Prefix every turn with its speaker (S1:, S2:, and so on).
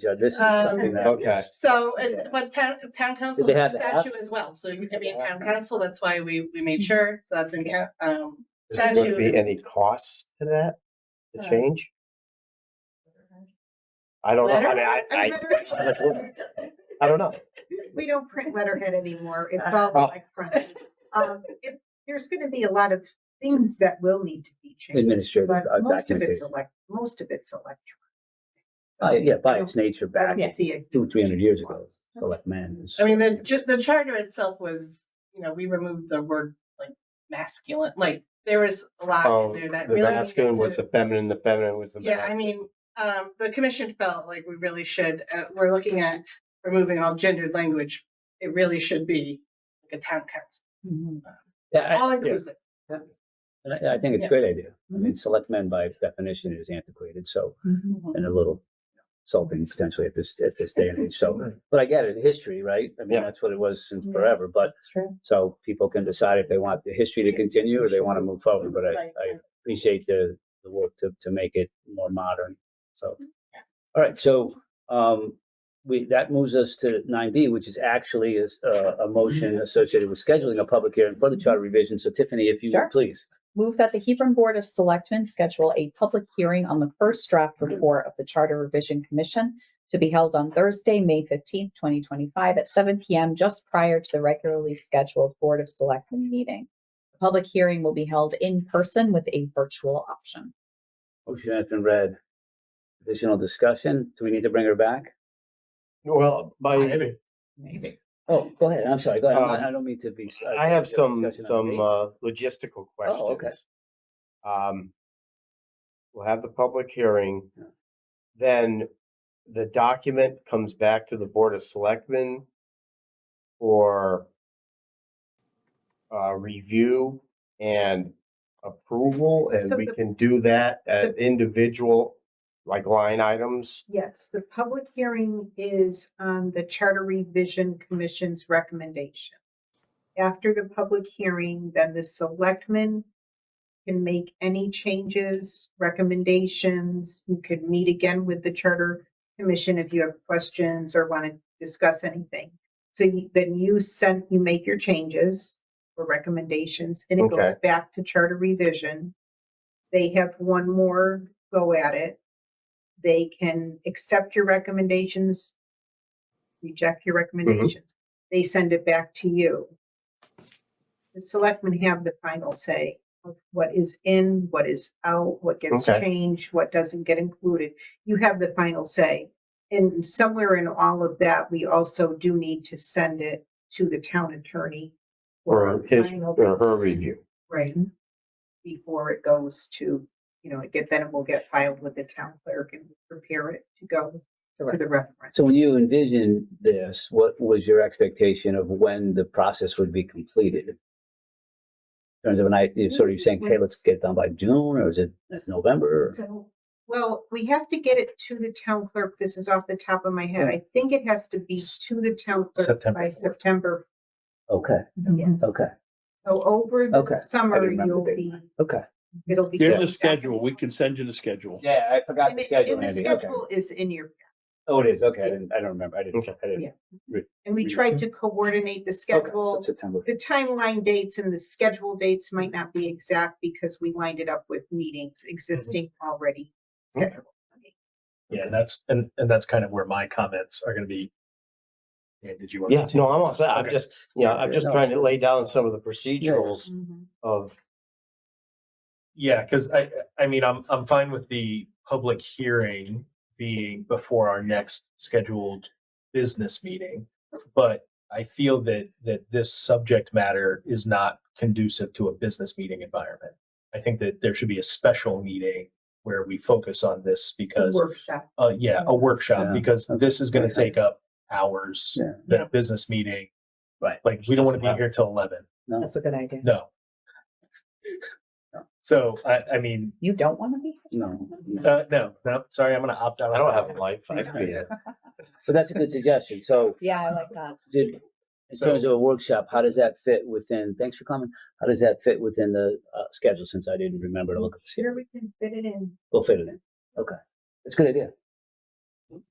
S1: Judge. This is
S2: Um,
S1: something that.
S3: Okay.
S2: So, and, but town, town council
S1: They
S2: has
S1: have
S2: a
S1: apps?
S2: statute as well, so you can be in town council, that's why we, we
S4: Mm-hmm.
S2: made sure, so that's in, ca- um,
S4: Does there be
S2: statute.
S4: any costs to that,
S2: Uh,
S4: the change? I don't know, I mean, I, I,
S2: Letter?
S4: I don't know.
S5: We don't print letterhead anymore. It's
S2: Uh,
S5: all
S4: oh.
S5: electronic. Um, if- There's going to be a lot of things that will need to be changed,
S1: Administrative
S5: but
S1: uh,
S5: most of it's
S1: documentation.
S5: elect, most of it's electronic. So
S1: Oh, yeah, by
S5: you
S1: its nature,
S5: don't-
S1: back
S5: you don't see it. Mm-hmm.
S1: two, three hundred years ago, select man is.
S2: I mean, the, ju- the charter itself was, you know, we removed the word like masculine, like there was a lot
S4: Oh,
S2: in there that
S4: The
S2: really.
S4: masculine
S2: needed
S4: was
S2: to-
S4: the feminine, the feminine was the
S2: Yeah, I
S4: masculine.
S2: mean, um, the commission felt like we really should, uh, we're looking at removing all gendered language. It really should be like a town council,
S1: Yeah,
S2: all
S1: I- yeah.
S2: inclusive.
S1: And I, I think it's
S2: Yeah.
S1: a great idea. I mean, select men by its definition is antiquated, so,
S5: Mm-hmm.
S1: and a little insulting potentially at this, at this day and age, so. But I get it, history, right? I mean,
S4: Yeah.
S1: that's what it was since
S2: Yeah.
S1: forever, but,
S2: true.
S1: so people can decide if they want the history to continue or they want to move forward, but I,
S2: Right.
S1: I appreciate the, the work to, to make it more modern, so.
S2: Mm-hmm.
S1: All right, so, um, we, that moves us to nine B, which is actually is, uh, a motion
S2: Mm-hmm.
S1: associated with scheduling a public hearing for the charter revision. So Tiffany, if you
S6: Sure.
S1: would, please.
S6: Move that the Hebron Board of Selectmen schedule a public hearing on the first draft report of the Charter Revision Commission to be held on Thursday, May fifteenth, twenty twenty-five at seven PM, just prior to the regularly scheduled Board of Selectmen meeting. The Public hearing will be held in person with a virtual option.
S1: Motion has been read. Additional discussion? Do we need to bring her back?
S4: Well, my,
S6: Maybe.
S1: Oh, go ahead. I'm sorry. Go ahead. I'm not-
S4: Um,
S1: I don't mean to be. uh,
S4: I have some,
S1: discussion on
S4: some,
S1: me.
S4: uh, logistical
S1: Oh, okay.
S4: questions. Um, we'll have the public hearing. Then the document comes back to the Board of Selectmen for uh, review and approval, and
S5: So
S4: we
S5: the-
S4: can do that at individual, like line items.
S5: Yes, the public hearing is on the Charter Revision Commission's recommendation. After the public hearing, then the selectmen can make any changes, recommendations. You could meet again with the Charter Commission if you have questions or want to discuss anything. So you- then you send, you make your changes or recommendations, and it goes
S4: Okay.
S5: back to Charter Revision. They have one more go at it they can accept your recommendations, reject your recommendations. They send it back to you. The selectmen have the final say of what is in, what is out, what gets
S4: Okay.
S5: changed, what doesn't get included. You have the final say. And somewhere in all of that, we also do need to send it to the town attorney.
S4: Or his,
S5: final
S4: or her review.
S5: Right. Before it goes to, you know, it get, then it will get filed with the town clerk and prepare it to go to the reference.
S1: So when you envisioned this, what was your expectation of when the process would be completed? In terms of an idea, sort of saying, hey, let's get it done by June or is it, it's November?
S5: Well, we have to get it to the town clerk. This is off the top of my head. I think it has to be to the town clerk
S4: September
S5: by
S4: fourth.
S5: September.
S1: Okay,
S5: Yes.
S1: okay,
S5: So over
S1: Okay. I
S5: the summer,
S1: remember
S5: you'll
S1: the
S5: be,
S1: okay.
S5: it'll be.
S3: Here's the schedule. We can send you the schedule.
S1: Yeah, I forgot
S5: And it- and the schedule is in your
S1: Oh, it is. Okay. I didn't, I don't remember. I didn't, I didn't.
S5: Yeah. And we
S1: Yeah.
S5: tried to coordinate the
S1: Okay, so
S5: schedule.
S1: September.
S5: The timeline dates and the schedule dates might not be exact because we lined it up with meetings
S1: Mm-hmm.
S5: existing already
S4: Okay.
S5: scheduled.
S7: Yeah, and that's, and, and that's kind of where my comments are gonna be. And did you? want
S4: Yeah,
S7: to-
S4: no, I'm all set. I'm
S7: Okay.
S4: just, you know, I'm just
S1: No.
S4: trying to lay down some of the procedurals of,
S7: Yeah, because I, I mean, I'm, I'm fine with the public hearing being before our next scheduled business meeting. But I feel that, that this subject matter is not conducive to a business meeting environment. I think that there should be a special meeting where we focus on this because,
S5: Workshop.
S7: uh, yeah,
S1: Yeah.
S7: a workshop, because this is gonna
S1: Okay.
S7: take up hours
S1: Yeah.
S7: than a business meeting.
S1: Right.
S7: Like, we don't want to
S4: Wow.
S7: be here till eleven.
S1: No.
S6: a good idea.
S7: No. So I, I mean,
S6: You don't want to be?
S1: No. no.
S7: uh, no, no, sorry, I'm gonna opt out.
S4: I don't have a life. I could be a-
S1: But that's a good suggestion. So
S6: Yeah, I like that.
S1: did, in
S7: So-
S1: terms of a workshop, how does that fit within, thanks for coming. How does that fit within the uh, schedule since I didn't remember to look at the schedule?
S5: Sure, we can fit it in.
S1: We'll fit it in. Okay. That's a good idea.